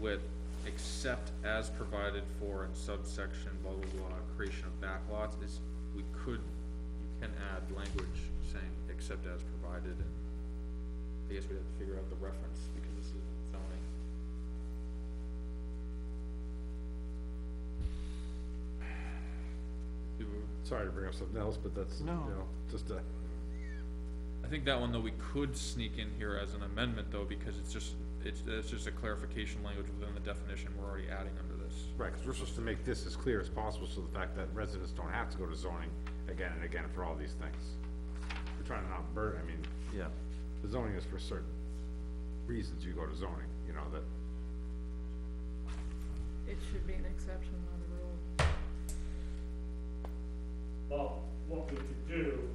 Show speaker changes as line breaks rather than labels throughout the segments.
with except as provided for in subsection blah, blah, blah, creation of backlots is, we could, you can add language saying except as provided. and I guess we'd have to figure out the reference because this is zoning. Do we-
Sorry to bring up something else, but that's, you
No.
know, just a,
I think that one though, we could sneak in here as an amendment though, because it's just, it's, it's just a clarification language within the definition we're already adding under this.
right, because we're supposed to make this as clear as possible, so the fact that residents don't have to go to zoning again and again for all these things. We're trying to not burden, I mean,
Yeah.
the zoning is for certain reasons you go to zoning, you know, that,
It should be an exception, not a rule.
Well, what we could do,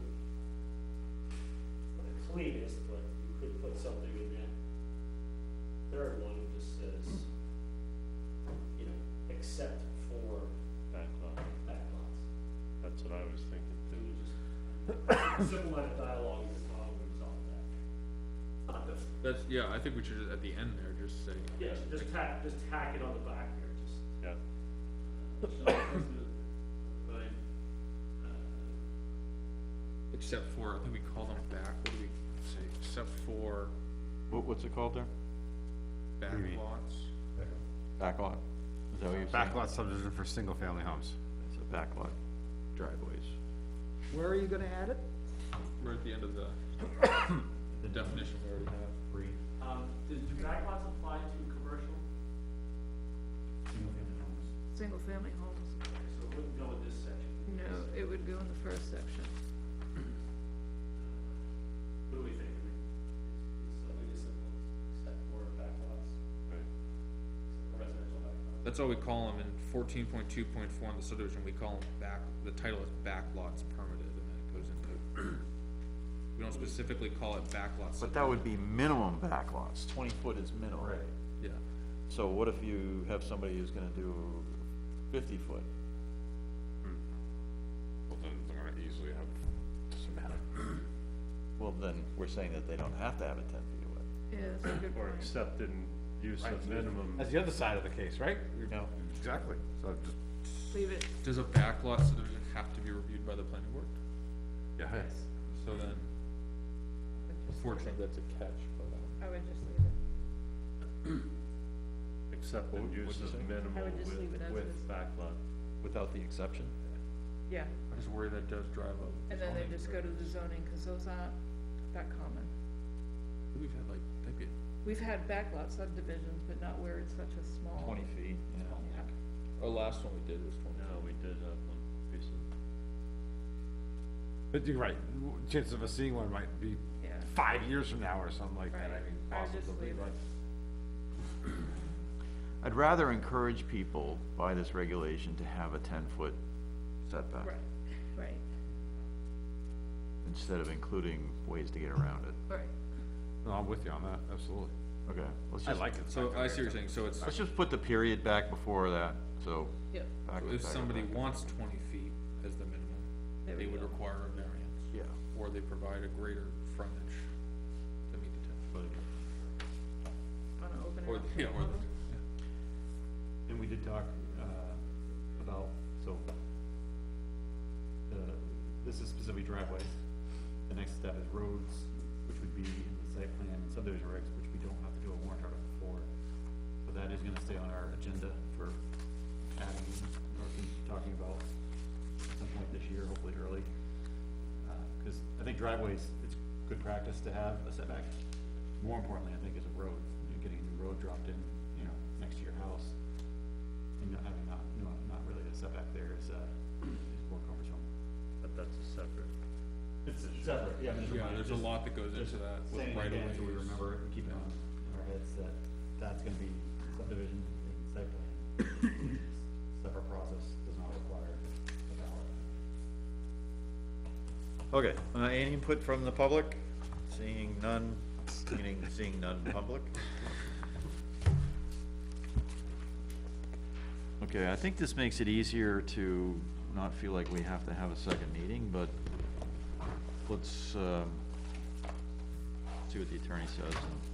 not the cleanest, but you could put something in that third one that just says, you know, except for
backlog.
backlots.
That's what I was thinking too.
Just simple line of dialogue is how we resolve that. Not the,
That's, yeah, I think we should, just at the end there, just say.
yeah, just tack, just tack it on the back here, just. uh,
Yeah,
Right. Uh,
Except for, I think we call them back, what do we say, except for
What, what's it called there?
Maybe.
backlots?
Backlot? Is that what you're saying?
backlot subdivision for single-family homes.
It's a backlot driveways.
Where are you gonna add it?
We're at the end of the, the definition we already have.
Um, do do backlots apply to commercial?
Single-family homes,
Okay, So it wouldn't go in this section.
no, it would go in the first section.
What do we think? I mean, Something as simple as step four backlots,
right.
residential backlots.
That's all we call them in fourteen point two point four in the subdivision, we call them back, the title is backlots permitted, and then it goes into. We don't specifically call it backlots.
But that would be minimum backlots, twenty foot is minimum. Right.
Yeah,
So what if you have somebody who's gonna do fifty foot?
Well, then they're gonna easily have, doesn't matter.
Well, then we're saying that they don't have to have it ten feet away.
Yeah, that's a good
Or
point.
accepted use of minimum.
That's the other side of the case, right?
No.
Exactly, so just,
Leave it,
does a backlot subdivision have to be reviewed by the planning board?
yeah,
So then, unfortunately, that's a catch, but. um,
I would just leave it.
Accepted
What-
use
what'd you
of
say?
I
minimal
would
with,
just leave it as is.
with backlot.
Without the exception?
Yeah,
I just worry that does drive up.
and then they just go to the zoning, cause those aren't that common.
We've had like, that'd be,
We've had backlot subdivisions, but not where it's such a small.
Twenty feet, you know.
Yeah.
our last one we did was twenty.
No, we did have one piece of,
but you're right, w- chances of us seeing one might be
Yeah,
five years from now or something like that, I
Right.
mean,
I would just
possibly,
leave it.
but.
I'd rather encourage people by this regulation to have a ten foot setback.
right, right,
Instead of including ways to get around it.
right.
No, I'm with you on that, absolutely.
Okay, let's just,
it.
So I see what you're saying, so it's,
let's just put the period back before that, so.
Yep,
back-
if
back-
somebody
back-
wants twenty feet as the minimum,
there
they
we
would
go.
require a variance.
Yeah.
Or they provide a greater frontage to meet the ten foot.
Wanna open it
Or,
up
yeah,
to
or
public?
the,
And we did talk, uh, about, so, the, this is specifically driveways. The next step is roads, which would be in the site plan and subdivision regs, which we don't have to do a warrant article for. So that is gonna stay on our agenda for adding, or talking about at some point this year, hopefully early. Uh, Cause I think driveways, it's good practice to have a setback. More importantly, I think is a road, you know, getting a new road dropped in, you know, next to your house. And not having not, not, not really a setback there is, uh, is more cumbersome.
but that's a separate.
It's separate, yeah. I'm just
yeah,
reminding-
there's a
just
lot that goes into that with
Saying it
right of
again,
ways.
so we remember it and keep it on in our heads that that's gonna be subdivision and site plan. Separate process, does not require a
Okay,
ballot.
uh, any input from the public? Seeing none, meaning seeing none public? Okay, I think this makes it easier to not feel like we have to have a second meeting, but let's, um, see what the attorney says and